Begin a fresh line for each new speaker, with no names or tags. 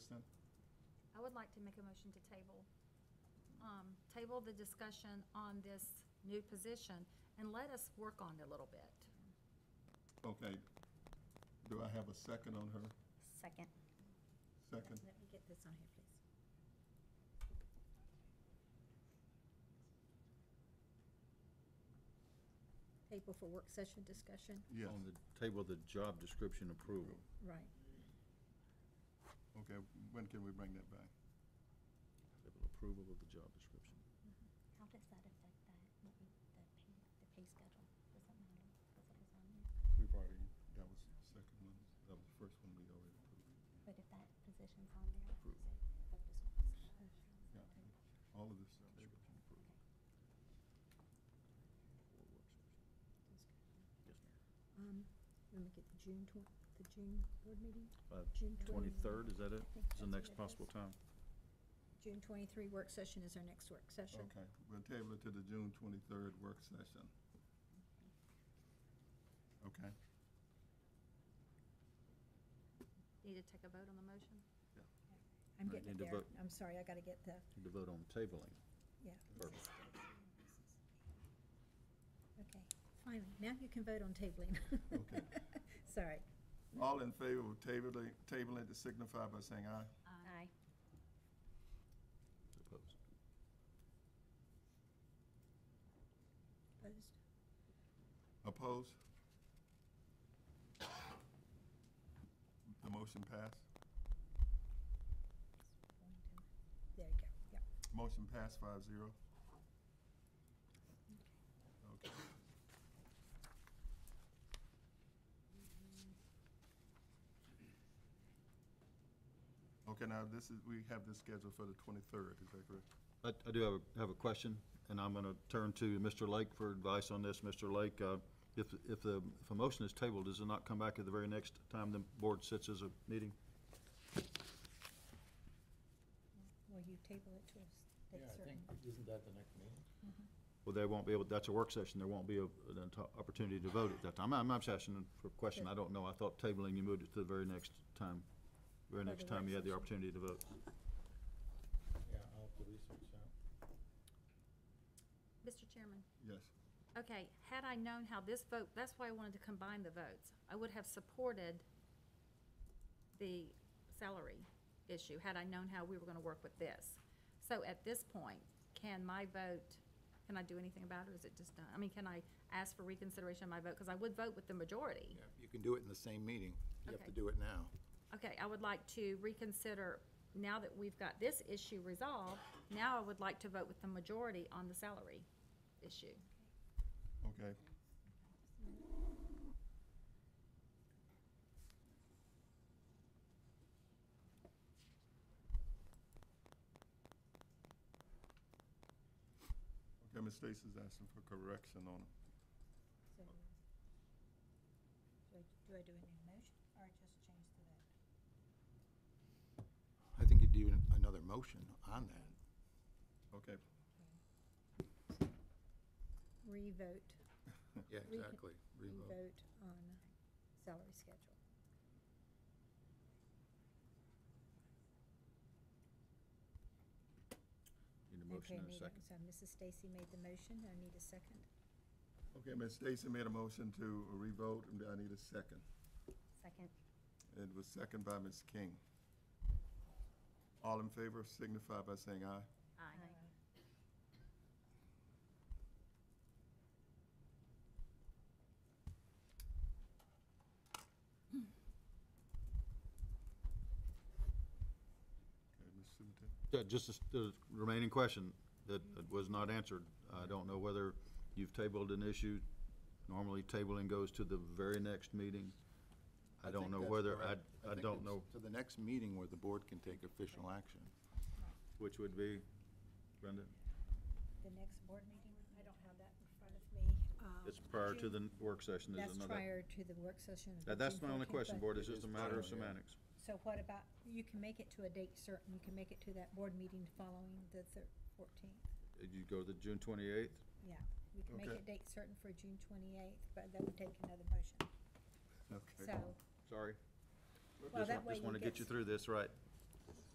I would like to make a motion to table, um, table the discussion on this new position and let us work on it a little bit.
Okay. Do I have a second on her?
Second.
Second?
Let me get this on here, please. Table for work session discussion,
Yes.
On the table, the job description approval.
right.
Okay, when can we bring that back?
Table approval of the job description.
How does that affect that, what we- the pay, the pay schedule? Does that matter? That's what was on there.
We've already, that was the second one, that was the first one we already approved.
But if that position's on there,
Approve.
is it- but this one is not?
Yeah, all of this.
Job description approval.
Okay.
Or work session. Yes, ma'am.
Um, let me get the June twen- the June board meeting?
Uh,
June
23rd, is that it?
I think
Is the
that's
next
what it
possible
is.
time?
June twenty-three work session is our next work session.
Okay, we'll table it to the June twenty-third work session. Okay?
Need to take a vote on the motion?
Yeah.
I'm
Right,
getting
Oh, need to
there.
vote.
I'm sorry, I gotta get the,
Need to vote on tabling
yeah,
first.
okay. Finally, now you can vote on tabling.
Okay.
Sorry.
All in favor of tabling, tabling to signify by saying aye?
Aye.
Opposed.
Opposed?
Opposed? The motion passed?
There you go, yeah.
Motion passed five zero.
Okay.
Okay. Okay, now this is, we have this scheduled for the twenty-third, is that correct?
I, I do have a, have a question, and I'm going to turn to Mr. Lake for advice on this. Mr. Lake, uh, if, if the, if a motion is tabled, does it not come back at the very next time the board sits as a meeting?
Will you table it to us?
Yeah, I think, isn't that the next meeting?
Well, they won't be able, that's a work session, there won't be a- an enti- opportunity to vote at that time. I'm, I'm just asking for a question, I don't know, I thought tabling, you moved it to the very next time, very
the
next time you had the
work
opportunity to vote.
Yeah, I'll have to research that.
Mr. Chairman?
Yes.
Okay, had I known how this vote, that's why I wanted to combine the votes. I would have supported the salary issue, had I known how we were going to work with this. So at this point, can my vote, can I do anything about it, or is it just done? I mean, can I ask for reconsideration of my vote? Because I would vote with the majority.
Yeah, You can do it in the same meeting. You have
Okay.
to do it now.
Okay, I would like to reconsider, now that we've got this issue resolved, now I would like to vote with the majority on the salary issue.
Okay. Okay, Ms. Stacy's asking for correction on it.
So, so do I do a new motion or just change the vote?
I think you do another motion on that.
Okay.
Revote.
Yeah,
Re-
exactly. Revote.
Revote on salary schedule.
Need a motion
Okay,
and a
need
second.
So Mrs. Stacy made the motion, I need a second.
Okay, Ms. Stacy made a motion to revote, and I need a second.
Second.
It was second by Ms. King. All in favor signify by saying aye.
Aye.
Okay, Ms. Sutton.
Yeah, Uh, Just the s- the remaining question that that was not answered, I don't know whether you've tabled an issue, normally tabling goes to the very next meeting. I don't
think
know
that's
whether, I,
correct.
I
think
don't
it's
know
To the next meeting where the board can take official action.
which would be, Brenda?
The next board meeting, I don't have that in front of me. Um,
It's prior to the work session, is
That's
another.
prior to the work session. of
That- That's
June
my only
14th,
question,
but-
Board, it's
It
just a
is
matter of
prior, yeah.
semantics.
So what about, you can make it to a date certain, you can make it to that board meeting following the thir- 14th.
You go to June 28th?
Yeah, we can make
Okay.
it date certain for June 28th, but that would take another motion.
Okay.
So,
Sorry.
well,
Just-
that way you
Just want to get you
s-
through this, right?